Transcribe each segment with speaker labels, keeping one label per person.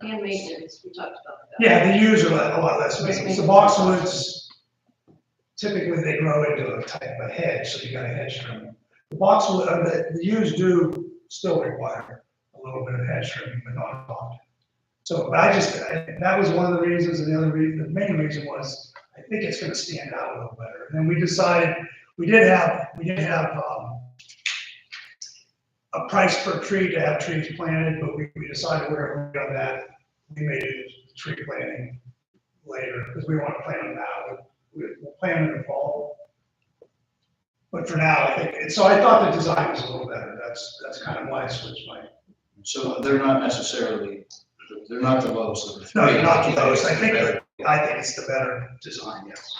Speaker 1: and maintenance, we talked about that.
Speaker 2: Yeah, they use a lot, a lot less maintenance. The boxwoods, typically they grow into a type of hedge, so you gotta hedge trim. The boxwood, uh, the, the yews do still require a little bit of hedge trimming, but not often. So I just, I- that was one of the reasons, and the other reason, the main reason was, I think it's gonna stand out a little better. And we decided, we did have, we did have, um, a price per tree to have trees planted, but we, we decided we're gonna go that, we may do tree planting later, because we want to plant them now. We- We'll plant them in the fall. But for now, I think, and so I thought the design was a little better. That's, that's kind of why I switched my,
Speaker 3: So they're not necessarily, they're not the lowest.
Speaker 2: no, you're not the lowest. I think, I think it's the better design, yes.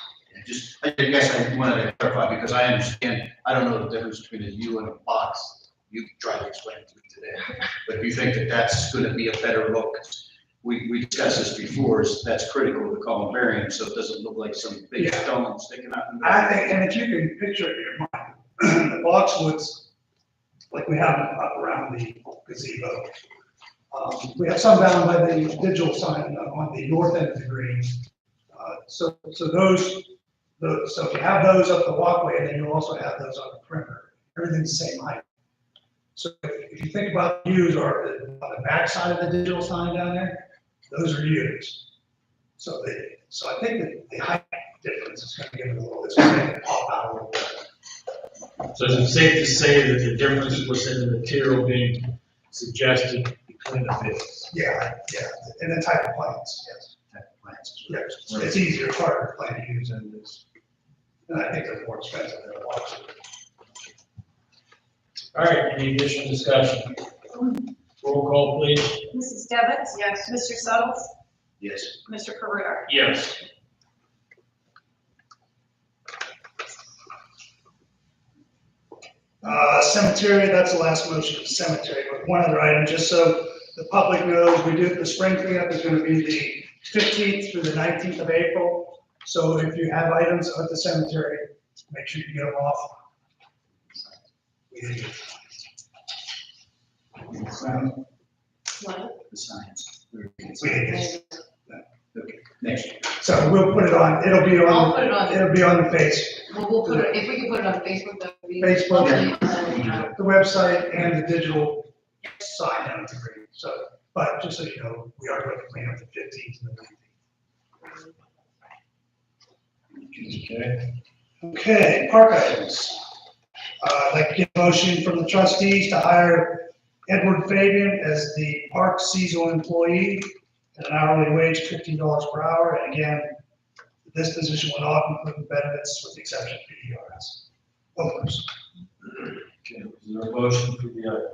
Speaker 3: Just, I guess I wanted to clarify, because I understand, I don't know the difference between a U and a box. You tried to explain it to me today, but if you think that that's gonna be a better look, we, we discussed this before, is that's critical to column variance, so it doesn't look like some big
Speaker 2: Yeah.
Speaker 3: stone sticking out. in the-
Speaker 2: I think, and if you can picture it in your mind, the boxwoods, like we have up around the gazebo. Um, We have some down by the digital sign on the north end of the green. Uh, So, so those, those, so you have those up the walkway, and then you also have those on the perimeter. Everything's the same height. So if if you think about views or the- on the backside of the digital sign down there, those are views. So they, so I think that the height difference is gonna give it a little, it's gonna pop out a little bit.
Speaker 4: So is it safe to say that the difference was in the material being suggested between the bids?
Speaker 2: Yeah, yeah, and the type of plants, yes. Yeah, it's- It's easier, it's harder to plant use and it's, and I think they're more expensive than a lot.
Speaker 4: All right, any additional discussion? Roll call, please.
Speaker 5: Mrs. Devitt?
Speaker 1: Yes.
Speaker 5: Mr. Suddles?
Speaker 3: Yes,
Speaker 5: Mr. Career?
Speaker 4: Yes.
Speaker 2: Uh, cemetery, that's the last motion, cemetery, but one other item, just so the public knows, we do, the spring cleanup is gonna be the fifteenth through the nineteenth of April. So if you have items at the cemetery, make sure you get them off. We-
Speaker 1: One,
Speaker 3: the science.
Speaker 2: we-
Speaker 3: Next.
Speaker 2: So we'll put it on, it'll be on.
Speaker 1: I'll put it on.
Speaker 2: It'll be on the face,
Speaker 1: well, we'll put, it- if we can put it on Facebook, that would be.
Speaker 2: Facebook.
Speaker 1: Yeah.
Speaker 2: the website and the digital sign on the green. So, but just so you know, we are going to clean up the fifteenth and the nineteenth.
Speaker 3: Okay.
Speaker 2: Okay, park items. Uh, I'd like to get a motion from the trustees to hire Edward Fabian as the park seasonal employee at an hourly wage of fifteen dollars per hour. And again, this position will not include benefits with the exception of PDRS. Overs.
Speaker 3: Okay, is there a motion for the
Speaker 4: uh,
Speaker 3: item?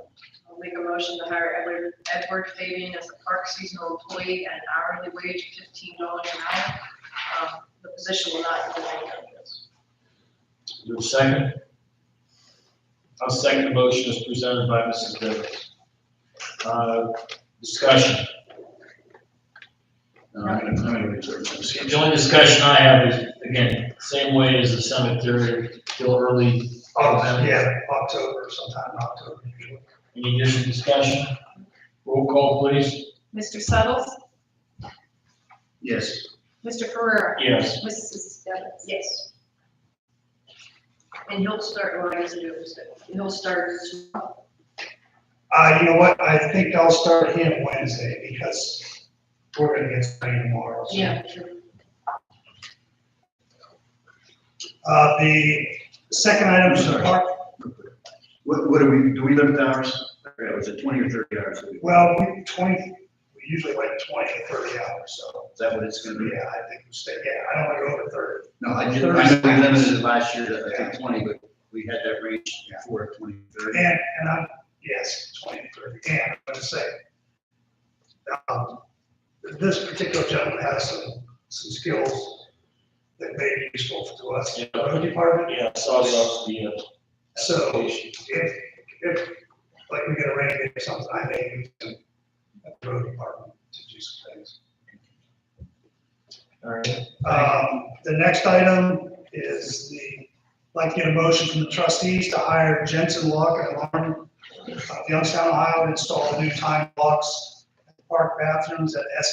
Speaker 1: I'll make a motion to hire Edward, Edward Fabian as a park seasonal employee at an hourly wage of fifteen dollars an hour. Um, The position will not include any benefits.
Speaker 4: Is there a second? I'll second the motion as presented by Mrs. Devitt. Uh, Discussion.
Speaker 3: No, Uh, I'm gonna, I'm gonna reserve this.
Speaker 4: The only discussion I have is, again, same way as the cemetery, still early.
Speaker 2: Oh, yeah, October, sometime in October usually.
Speaker 4: Any additional discussion? Roll call, please.
Speaker 5: Mr. Suddles?
Speaker 3: Yes.
Speaker 5: Mr. Career?
Speaker 4: Yes.
Speaker 5: Mrs. Devitt?
Speaker 1: Yes. And he'll start, or I guess it was, he'll start,
Speaker 2: Uh, you know what, I think I'll start him Wednesday because we're gonna get started tomorrow. so.
Speaker 1: yeah, sure.
Speaker 2: Uh, the second item is the park,
Speaker 3: What, what do we, do we limit hours? Yeah, was it twenty or thirty hours a week?
Speaker 2: well, we twenty, we usually like twenty to thirty hours, so,
Speaker 3: Is that what it's gonna be?
Speaker 2: yeah, I think we stay, yeah, I don't wanna go over thirty.
Speaker 3: No, I just, I know we limited it last year to, I think, twenty, but we had that range before at twenty, thirty.
Speaker 2: And, and I'm, yes, twenty to thirty, and I'm gonna say, um, this particular gentleman has some, some skills that may be useful to us, in the road department.
Speaker 4: Yeah, I saw the, uh,
Speaker 2: So-
Speaker 4: application.
Speaker 2: if, if, like, we get a rain day or something, I may use the the road department to do some things.
Speaker 4: All right,
Speaker 2: Um, the next item is the, like, get a motion from the trustees to hire uh, Jensen Lock and Alarm of Youngstown, Ohio, to install the new time locks at the park bathrooms at S